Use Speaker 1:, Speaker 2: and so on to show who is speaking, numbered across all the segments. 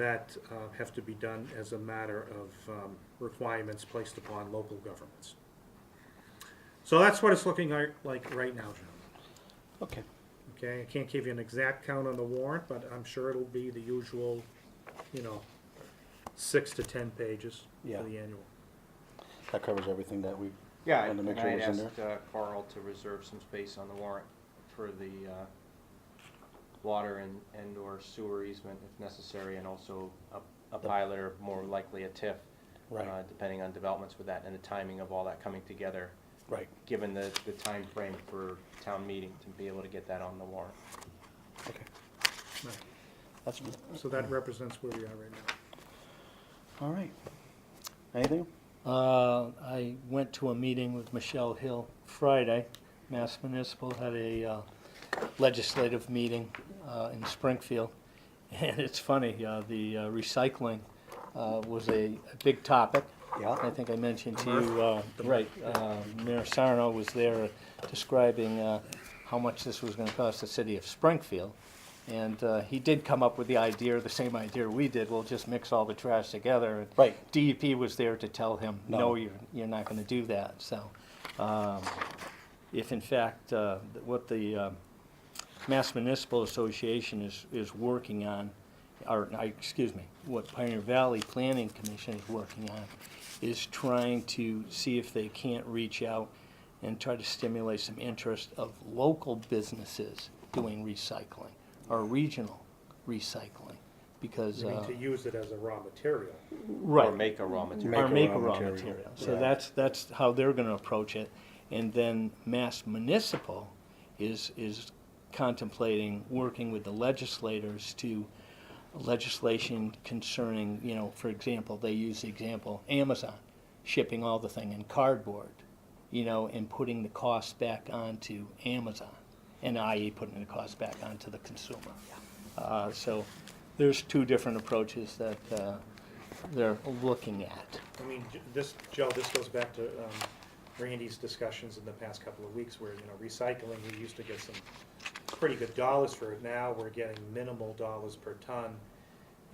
Speaker 1: that uh, have to be done as a matter of um, requirements placed upon local governments. So that's what it's looking like like right now, gentlemen.
Speaker 2: Okay.
Speaker 1: Okay, I can't give you an exact count on the warrant, but I'm sure it'll be the usual, you know, six to 10 pages for
Speaker 2: Yeah.
Speaker 1: the annual.
Speaker 2: That covers everything that we
Speaker 3: Yeah,
Speaker 2: wanted to
Speaker 3: and
Speaker 2: make sure
Speaker 3: I
Speaker 2: was in there.
Speaker 3: asked uh, Carl to reserve some space on the warrant for the uh, water and, and/or sewer easement if necessary, and also a- a pilot or more likely a TIF.
Speaker 2: Right.
Speaker 3: uh, Depending on developments with that and the timing of all that coming together,
Speaker 2: Right,
Speaker 3: given the, the timeframe for town meeting to be able to get that on the warrant.
Speaker 2: okay.
Speaker 1: Right.
Speaker 2: That's,
Speaker 1: So that represents where we are right now.
Speaker 2: all right. Anything?
Speaker 4: Uh, I went to a meeting with Michelle Hill Friday. Mass Municipal had a uh, legislative meeting uh, in Springfield. And it's funny, uh, the uh, recycling uh, was a a big topic.
Speaker 2: Yeah.
Speaker 4: I think I mentioned to you, uh, right, uh, Mayor Sarno was there describing uh, how much this was going to cost the city of Springfield. And uh, he did come up with the idea, the same idea we did, we'll just mix all the trash together. and
Speaker 2: Right.
Speaker 4: DEP was there to tell him,
Speaker 2: No.
Speaker 4: no, you're, you're not gonna do that, so. um, If in fact, uh, th- what the um, Mass Municipal Association is, is working on, or, I- excuse me, what Pioneer Valley Planning Commission is working on, is trying to see if they can't reach out and try to stimulate some interest of local businesses doing recycling, or regional recycling, because.
Speaker 1: I mean,
Speaker 4: uh,
Speaker 1: to use it as a raw material.
Speaker 4: Right.
Speaker 3: Or make a raw material.
Speaker 4: Or
Speaker 2: Make
Speaker 4: make
Speaker 2: a
Speaker 4: a
Speaker 2: raw
Speaker 4: raw
Speaker 2: material.
Speaker 4: material. So
Speaker 2: Yeah.
Speaker 4: that's, that's how they're gonna approach it. And then Mass Municipal is, is contemplating working with the legislators to legislation concerning, you know, for example, they use the example, Amazon shipping all the thing in cardboard, you know, and putting the cost back onto Amazon, and i.e. putting the cost back onto the consumer. Uh, so there's two different approaches that, uh, they're looking at.
Speaker 1: I mean, j- this, Joe, this goes back to um, Randy's discussions in the past couple of weeks where, you know, recycling, we used to get some pretty good dollars for it. Now we're getting minimal dollars per ton.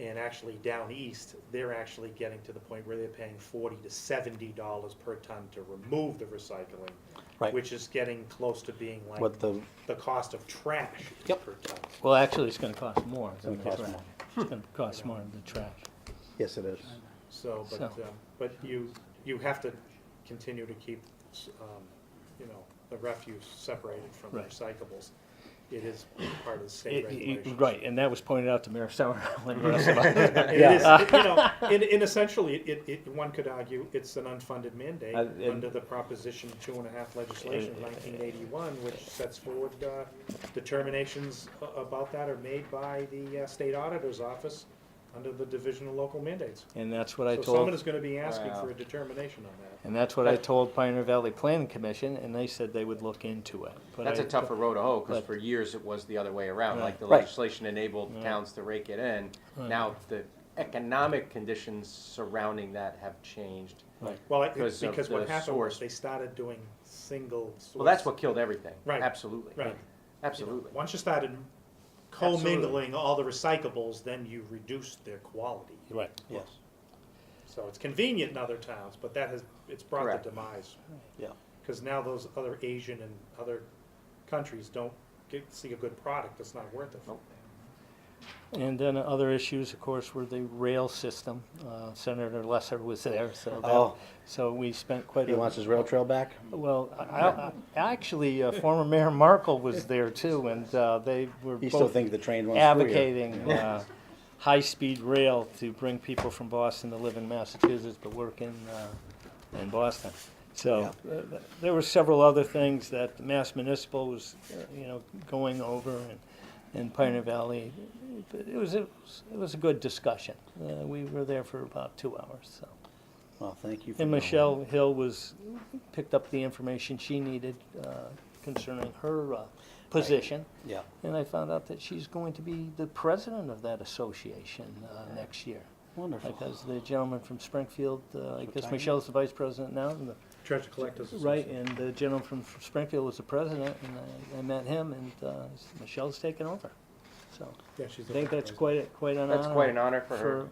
Speaker 1: And actually down east, they're actually getting to the point where they're paying forty to seventy dollars per ton to remove the recycling.
Speaker 2: Right.
Speaker 1: Which is getting close to being like
Speaker 2: What the,
Speaker 1: the cost of trash
Speaker 2: Yep.
Speaker 1: per ton.
Speaker 4: Well, actually, it's gonna cost more
Speaker 2: gonna
Speaker 4: than the
Speaker 2: cost
Speaker 4: trash.
Speaker 2: more.
Speaker 4: It's gonna cost more than the trash.
Speaker 2: yes, it is.
Speaker 1: So, but,
Speaker 4: So-
Speaker 1: uh, but you, you have to continue to keep, um, you know, the refuse separated from the
Speaker 4: Right.
Speaker 1: recyclables. It is part of the state
Speaker 4: It- it-
Speaker 1: regulations.
Speaker 4: Right, and that was pointed out to Mayor Summerall and the rest of us.
Speaker 1: And It is, it- you know, and, and essentially, it, it, one could argue, it's an unfunded mandate
Speaker 2: Uh, and-
Speaker 1: under the Proposition Two and a Half legislation of
Speaker 4: Uh,
Speaker 1: nineteen eighty-one, which sets forward, uh, determinations a- about that are made by the uh, State Auditor's Office under the Division of Local Mandates.
Speaker 4: And that's what I
Speaker 1: So someone
Speaker 4: told,
Speaker 1: is gonna be asking
Speaker 3: Wow.
Speaker 1: for a determination on that.
Speaker 4: and that's what I told Pioneer Valley Planning Commission, and they said they would look into it. But
Speaker 3: That's
Speaker 4: I-
Speaker 3: a tougher road to hoe, because
Speaker 4: but-
Speaker 3: for years it was the other way around,
Speaker 4: Right.
Speaker 3: like the
Speaker 2: Right.
Speaker 3: legislation enabled towns to rake it in. Now, the economic conditions surrounding that have changed.
Speaker 4: Right.
Speaker 1: Well, it-
Speaker 3: because of
Speaker 1: because what
Speaker 3: the
Speaker 1: happened was
Speaker 3: source.
Speaker 1: they started doing single source.
Speaker 3: Well, that's what killed everything.
Speaker 1: Right.
Speaker 3: Absolutely.
Speaker 1: Right. You know,
Speaker 3: Absolutely.
Speaker 1: Once you started co-mingling all the recyclables, then you reduced their quality.
Speaker 4: Right.
Speaker 2: Yes,
Speaker 1: So it's convenient in other towns, but that has, it's brought
Speaker 3: Correct.
Speaker 1: the demise.
Speaker 2: yeah,
Speaker 1: Because now those other Asian and other countries don't get, see a good product, it's not worth it.
Speaker 3: Nope.
Speaker 4: And then other issues, of course, were the rail system. Uh, Senator Lesser was there, so
Speaker 2: Oh.
Speaker 4: that, so we spent quite
Speaker 2: he
Speaker 4: a.
Speaker 2: wants his rail trail back?
Speaker 4: Well, I, I, actually, uh, former Mayor Markle was there too, and, uh, they were both.
Speaker 2: He still thinks the train runs through here.
Speaker 4: advocating uh, high-speed rail to bring people from Boston to live in Massachusetts but work in, uh, in Boston. So uh, th- there were several other things that the Mass Municipal was, uh, you know, going over and, and Pioneer Valley. But It was, it was- it was a good discussion. Uh, We were there for about two hours, so.
Speaker 2: Well, thank you for.
Speaker 4: And
Speaker 2: going.
Speaker 4: Michelle Hill was, picked up the information she needed uh, concerning her uh, position.
Speaker 2: Yeah,
Speaker 4: And I found out that she's going to be the president of that association uh, next year.
Speaker 2: wonderful.
Speaker 4: Because the gentleman from Springfield, uh, I guess
Speaker 2: Retired.
Speaker 4: Michelle's the vice president now, and the-
Speaker 1: Treasure collectors.
Speaker 4: right, and the gentleman from Springfield was the president, and I- I met him, and uh, Michelle's taking over. So
Speaker 1: so.
Speaker 5: Yeah, she's
Speaker 1: I
Speaker 5: the
Speaker 1: think
Speaker 5: vice
Speaker 1: that's
Speaker 5: president.
Speaker 1: quite, a- quite an honor.
Speaker 4: That's quite an honor for her.